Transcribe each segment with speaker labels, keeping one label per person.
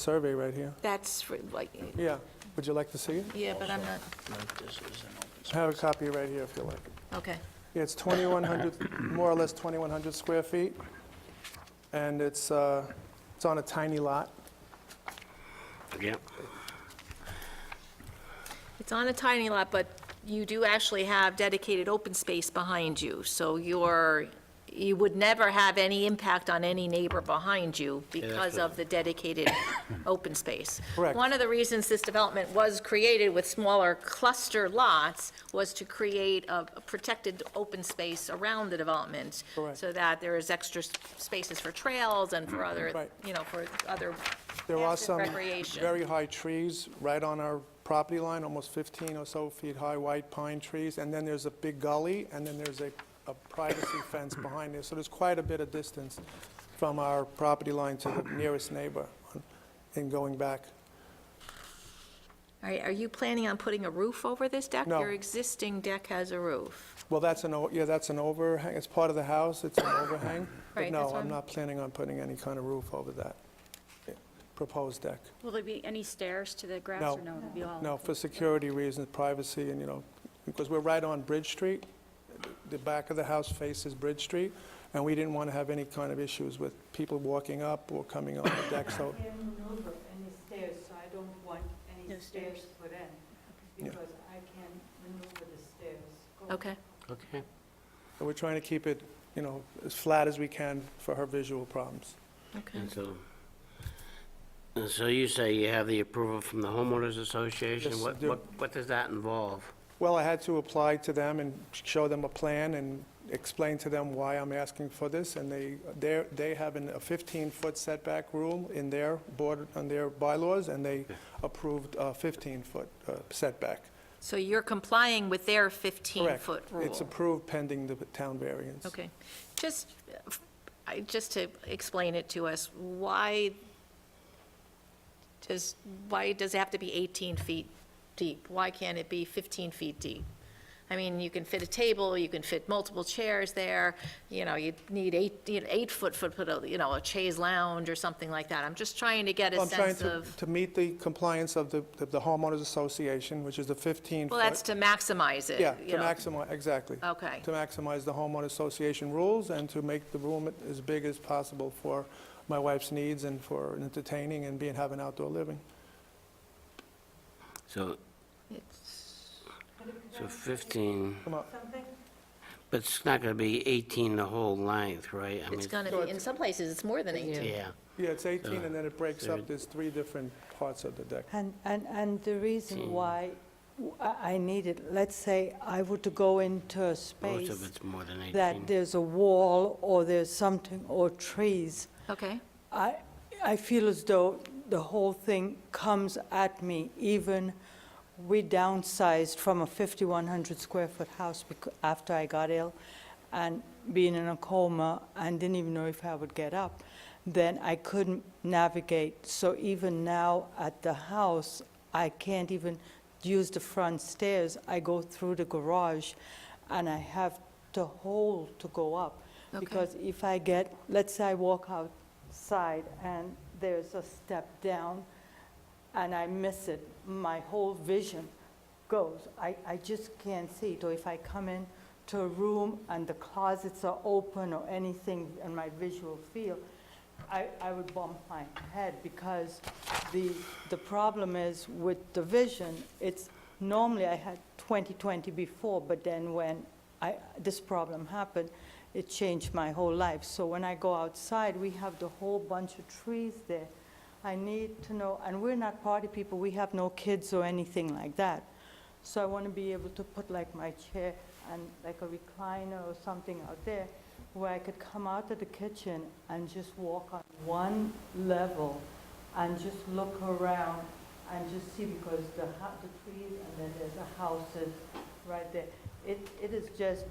Speaker 1: survey right here.
Speaker 2: That's for, like,
Speaker 1: Yeah, would you like to see it?
Speaker 2: yeah, but I'm not,
Speaker 1: I have a copy right here if you like.
Speaker 2: okay.
Speaker 1: Yeah, it's 2,100, more or less 2,100 square feet, and it's, uh, it's on a tiny lot.
Speaker 3: Yeah,
Speaker 2: It's on a tiny lot, but you do actually have dedicated open space behind you, so you're, you would never have any impact on any neighbor behind you because of the dedicated open space.
Speaker 1: Correct.
Speaker 2: One of the reasons this development was created with smaller cluster lots was to create a a protected open space around the development.
Speaker 1: Correct. Mm-hmm.
Speaker 2: So that there is extra s- spaces for trails and for other,
Speaker 1: Right.
Speaker 2: you know, for other
Speaker 1: There are
Speaker 2: Passive
Speaker 1: some
Speaker 2: recreation.
Speaker 1: very high trees right on our property line, almost 15 or so feet high white pine trees, and then there's a big gully, and then there's a a privacy fence behind there, so there's quite a bit of distance from our property line to the nearest neighbor in going back.
Speaker 2: All right, are you planning on putting a roof over this deck?
Speaker 1: No.
Speaker 2: Your existing deck has a roof.
Speaker 1: Well, that's an, o- yeah, that's an overhang, it's part of the house, it's an overhang. But
Speaker 2: Right, that's
Speaker 1: no,
Speaker 2: what
Speaker 1: I'm
Speaker 2: I'm-
Speaker 1: not planning on putting any kind of roof over that eh, proposed deck.
Speaker 4: Will there be any stairs to the grass
Speaker 1: No.
Speaker 4: or no? It'll be
Speaker 2: Oh,
Speaker 4: all.
Speaker 1: No, for security reasons, privacy, and, you know, because we're right on Bridge Street, the back of the house faces Bridge Street, and we didn't want to have any kind of issues with people walking up or coming on the deck, so,
Speaker 5: I can't maneuver any stairs, so I don't want any stairs put in,
Speaker 1: Yeah.
Speaker 5: because I can't maneuver the stairs. going
Speaker 2: Okay,
Speaker 3: okay.
Speaker 1: we're trying to keep it, you know, as flat as we can for her visual problems.
Speaker 2: okay.
Speaker 3: And so, and so you say you have the approval from the homeowners association?
Speaker 1: Yes, I
Speaker 3: What,
Speaker 1: do.
Speaker 3: what, what does that involve?
Speaker 1: Well, I had to apply to them and show them a plan and explain to them why I'm asking for this, and they, they're- they have an- a 15-foot setback rule in their board, on their bylaws, and they approved a 15-foot uh, setback.
Speaker 2: So you're complying with their 15-foot
Speaker 1: Correct.
Speaker 2: rule?
Speaker 1: It's approved pending the town variance.
Speaker 2: Okay. Just, uh, I- just to explain it to us, why does, why does it have to be 18 feet deep? Why can't it be 15 feet deep? I mean, you can fit a table, you can fit multiple chairs there, you know, you'd need eight, you know, eight-foot, foot, put a, you know, a chaise lounge or something like that. I'm just trying to get a
Speaker 1: I'm trying
Speaker 2: sense
Speaker 1: to,
Speaker 2: of,
Speaker 1: to meet the compliance of the of the homeowners association, which is the 15-foot.
Speaker 2: well, that's to maximize it,
Speaker 1: Yeah,
Speaker 2: you
Speaker 1: to
Speaker 2: know. Oh,
Speaker 1: maximize, exactly.
Speaker 2: Okay.
Speaker 1: To maximize the homeowner association rules and to make the room as big as possible for my wife's needs and for entertaining and being, having outdoor living.
Speaker 3: So,
Speaker 2: It's-
Speaker 3: so 15,
Speaker 1: Come on,
Speaker 5: Something,
Speaker 3: but it's not going to be 18 the whole length, right? I mean,
Speaker 2: It's gonna be, in some places, it's more than 18.
Speaker 3: Yeah,
Speaker 1: yeah, it's 18 and then it breaks
Speaker 3: So-
Speaker 1: up, there's three different parts of the deck.
Speaker 5: And, and, and the reason
Speaker 3: Gee.
Speaker 5: why w- I I need it, let's say I were to go into a
Speaker 3: most of
Speaker 5: space
Speaker 3: it's more than 18.
Speaker 5: that there's a wall or there's something or trees,
Speaker 2: Okay,
Speaker 5: I, I feel as though the whole thing comes at me, even we downsized from a 5,100 square foot house becau- after I got ill and being in a coma and didn't even know if I would get up, then I couldn't navigate. So even now at the house, I can't even use the front stairs. I go through the garage and I have to hold to go up.
Speaker 2: Okay.
Speaker 5: Because if I get, let's say I walk outside and there's a step down and I miss it, my whole vision goes. I, I just can't see it. Or if I come in to a room and the closets are open or anything in my visual field, I, I would bump my head because the, the problem is with the vision, it's, normally I had 20/20 before, but then when I, this problem happened, it changed my whole life. So when I go outside, we have the whole bunch of trees there. I need to know, and we're not party people, we have no kids or anything like that. So I want to be able to put like my chair and like a recliner or something out there where I could come out of the kitchen and just walk on one level and just look around and just see because the, ho- the trees and then there's the houses right there. It, it is just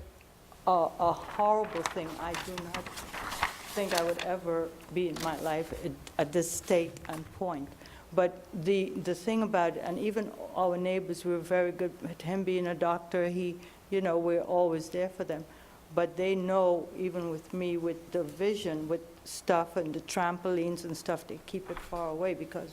Speaker 5: a, a horrible thing. I do not think I would ever be in my life at- at this state and point. But the, the thing about, and even our neighbors, we were very good, with him being a doctor, he, you know, we're always there for them. But they know, even with me, with the vision, with stuff and the trampolines and stuff, they keep it far away because